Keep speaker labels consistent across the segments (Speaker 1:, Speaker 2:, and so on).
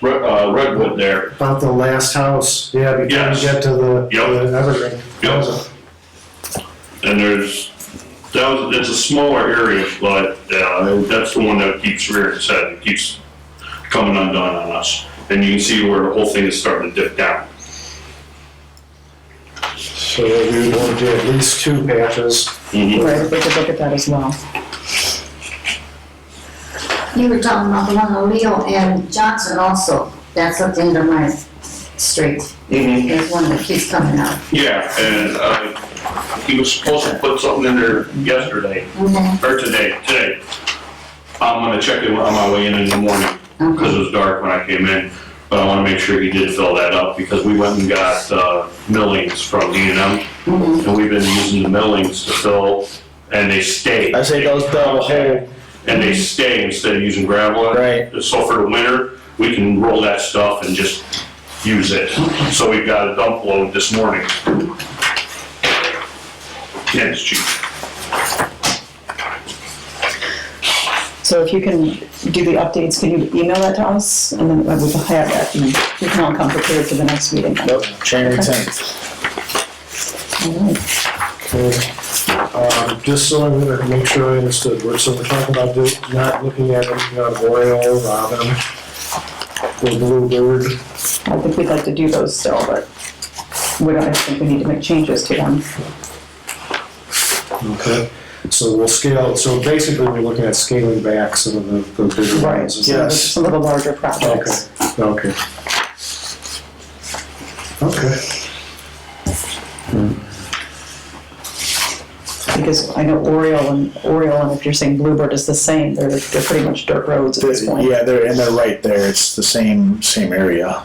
Speaker 1: Re- uh, Redwood there.
Speaker 2: About the last house, yeah, before
Speaker 1: Yes.
Speaker 2: you get to the
Speaker 1: Yep.
Speaker 2: the Evergreen.
Speaker 1: Yep. And there's, that was, it's a smaller area, but, uh, that's the one that keeps rearing its head, it keeps coming undone on us. And you can see where the whole thing is starting to dip down.
Speaker 2: So we want to do at least two patches.
Speaker 3: Mm-hmm.
Speaker 1: Mhm.
Speaker 4: Right, we could look at that as well.
Speaker 3: You were talking about the one on Leo and Johnson also, that's up the end of my street, there's one that keeps coming up.
Speaker 1: Yeah, and, uh, he was supposed to put something in there yesterday,
Speaker 3: Okay,
Speaker 1: or today, today. I'm gonna check it on my way in in the morning. because
Speaker 3: okay,
Speaker 1: it was dark when I came in, but I want to make sure he did fill that up, because we went and got uh, millings from D and M,
Speaker 5: Mm-hmm.
Speaker 3: mhm,
Speaker 1: and we've been using the millings to fill, and they stay.
Speaker 5: I say those fill the hole.
Speaker 1: And they stay instead of using gravel.
Speaker 5: Right.
Speaker 1: So for the winter, we can roll that stuff and just use it. So we got a dump load this morning. Yeah, it's cheap.
Speaker 4: So if you can do the updates, can you email that to us? And then we'll have that, and we can all come prepared for the next meeting. then.
Speaker 5: Nope, chain of ten.
Speaker 4: All right.
Speaker 2: Okay. Um, Just so I'm gonna make sure I understood, we're, so we're talking about do- not looking at anything on Oriole, Robin, the Bluebird.
Speaker 4: I think we'd like to do those still, but we don't, I think we need to make changes to them.
Speaker 2: Okay. So we'll scale, so basically we're looking at scaling back some of the, the bigger ones. is that-
Speaker 5: Yes.
Speaker 4: Some of the larger projects.
Speaker 2: Okay. Okay.
Speaker 4: Because I know Oriole and, Oriole, and if you're saying Bluebird is the same, they're, they're pretty much dirt roads at this point.
Speaker 5: Yeah, they're, and they're right there, it's the same, same area.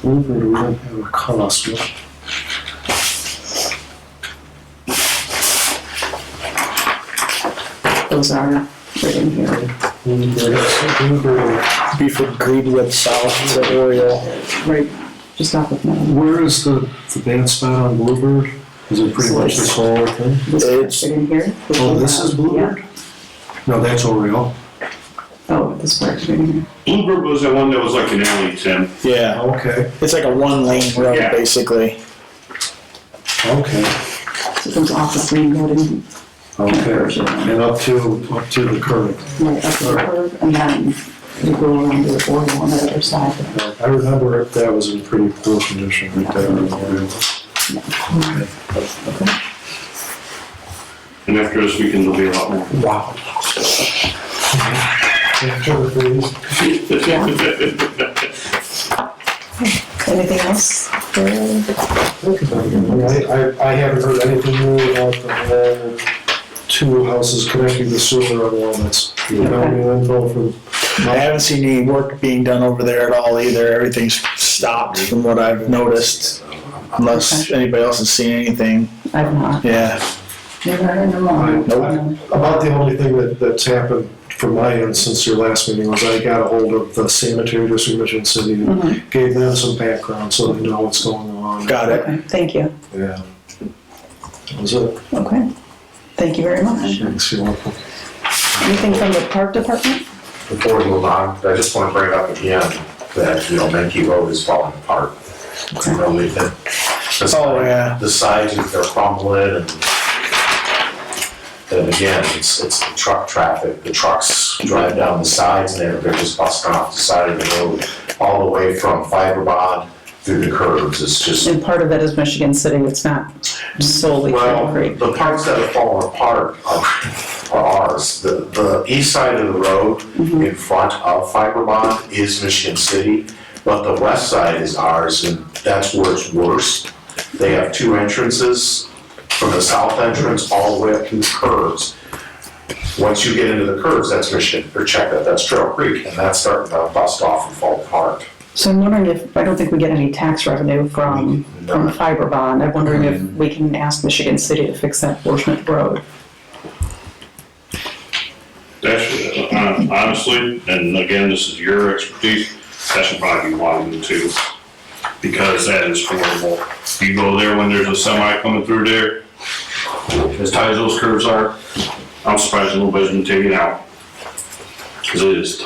Speaker 2: Bluebird, we don't have a cost. what-
Speaker 4: Those are, right in here,
Speaker 2: Bluebird, Bluebird.
Speaker 5: Beaufort Greenwood South to Oriole.
Speaker 4: right, just off of Meadow.
Speaker 2: Where is the, the band spot on Bluebird? Is it pretty much this whole thing?
Speaker 4: This
Speaker 5: It's-
Speaker 4: right in here.
Speaker 2: Oh, this is Bluebird? No, that's Oriole.
Speaker 4: Yeah. Oh, this part right in here.
Speaker 1: Bluebird was the one that was like an alley, Tim.
Speaker 5: Yeah,
Speaker 2: Okay,
Speaker 5: it's like a one lane road,
Speaker 1: Yeah.
Speaker 5: basically.
Speaker 2: okay,
Speaker 4: So it comes off of Green Road and
Speaker 2: okay. And up to, up to the current.
Speaker 4: right up the curve, and then you go around to the border on the other side.
Speaker 2: I remember it- that was in pretty poor condition right there on Oriole.
Speaker 1: And after this weekend, there'll be a lot more.
Speaker 2: Wow.
Speaker 4: Anything else?
Speaker 2: I, I I haven't heard anything new about the whole two houses connecting the sewer on Walnuts. You know, any info from
Speaker 5: I haven't seen any work being done over there at all either, everything's stopped from what I've noticed. Unless anybody else has seen anything,
Speaker 4: I've not.
Speaker 5: yeah.
Speaker 4: Never heard them all.
Speaker 5: Nope.
Speaker 2: About the only thing that, that's happened from my end since your last meeting was I got a hold of the sanitary district Mission City and gave them some background so they know what's going on.
Speaker 5: Got it.
Speaker 4: Okay, thank you.
Speaker 2: Yeah. That was it.
Speaker 4: Okay. Thank you very much.
Speaker 2: Thanks, you're welcome.
Speaker 4: Anything from the park department?
Speaker 6: Before we move on, I just want to bring up again that, you know, Menke Road is falling apart. You know, we've been-
Speaker 5: Oh, yeah.
Speaker 6: The sides are crumbling and, and again, it's, it's the truck traffic. The trucks drive down the sides and they're, they're just busting off the side of the road all the way from fiber bond through the curves. It's just
Speaker 4: And part of that is Michigan City, it's not solely Trail
Speaker 6: Well,
Speaker 4: Creek.
Speaker 6: the parts that have fallen apart are are ours. The, the east side of the road in front of Fiberbond is Michigan City, but the west side is ours, and that's where it's worse. They have two entrances, from the south entrance all the way up to the curves. Once you get into the curves, that's Michigan, or check that, that's Trail Creek, and that's starting to bust off and fall apart.
Speaker 4: So I'm wondering if, I don't think we get any tax revenue from, from fiber bond. I'm wondering if we can ask Michigan City to fix that portion of the road.
Speaker 1: That's, uh, honestly, and again, this is your expertise, that should probably be widened too, because that is horrible. You go there when there's a semi coming through there, as tight as those curves are, I'm surprised nobody's been taken out. Cause it is